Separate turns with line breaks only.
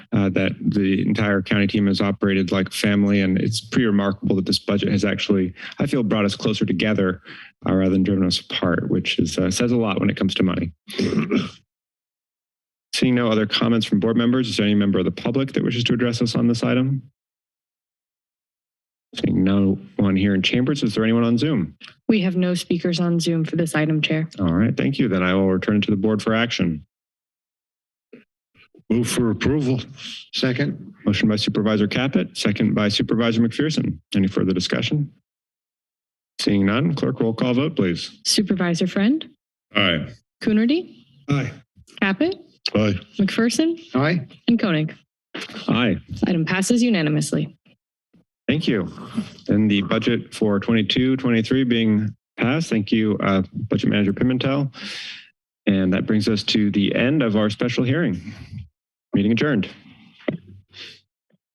uh, that the entire county team has operated like family. And it's pretty remarkable that this budget has actually, I feel, brought us closer together uh, rather than driven us apart, which is, uh, says a lot when it comes to money. Seeing no other comments from board members, is there any member of the public that wishes to address us on this item? Seeing no one here in chambers, is there anyone on Zoom?
We have no speakers on Zoom for this item, Chair.
All right, thank you. Then I will return it to the board for action.
Move for approval. Second.
Motion by Supervisor Caput, second by Supervisor McPherson. Any further discussion? Seeing none, clerk roll call vote, please.
Supervisor Friend,
Aye.
Coonerty,
Aye.
Caput,
Aye.
McPherson,
Aye.
and Koenig.
Aye.
Item passes unanimously.
Thank you. And the budget for 22, 23 being passed. Thank you, uh, Budget Manager Pimentel. And that brings us to the end of our special hearing. Meeting adjourned.